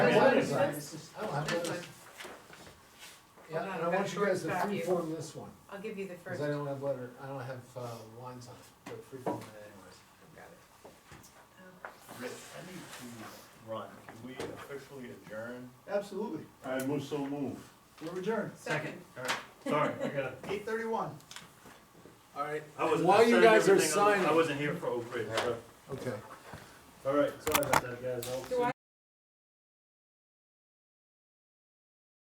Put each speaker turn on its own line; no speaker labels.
done it
noticed
right,
this?
it's just, oh, I've
This
noticed.
Hold
Yeah,
on,
and I
I've got
want you
yours
guys to
back here.
freeform this one,
I'll give you the
cause
first.
I don't have letter, I don't have, uh, lines on it, but freeform it anyways.
Got it. Oh,
Rich, I need to run. Can we officially adjourn?
Absolutely.
I will so move.
We're adjourned.
Second.
Alright, sorry, I gotta,
Eight thirty-one.
Alright.
I was. I
While you
started
guys are
everything on-
signing.
I wasn't here for Oak Ridge, so,
Okay.
alright, sorry about that, guys. I'll see
Do
you-
I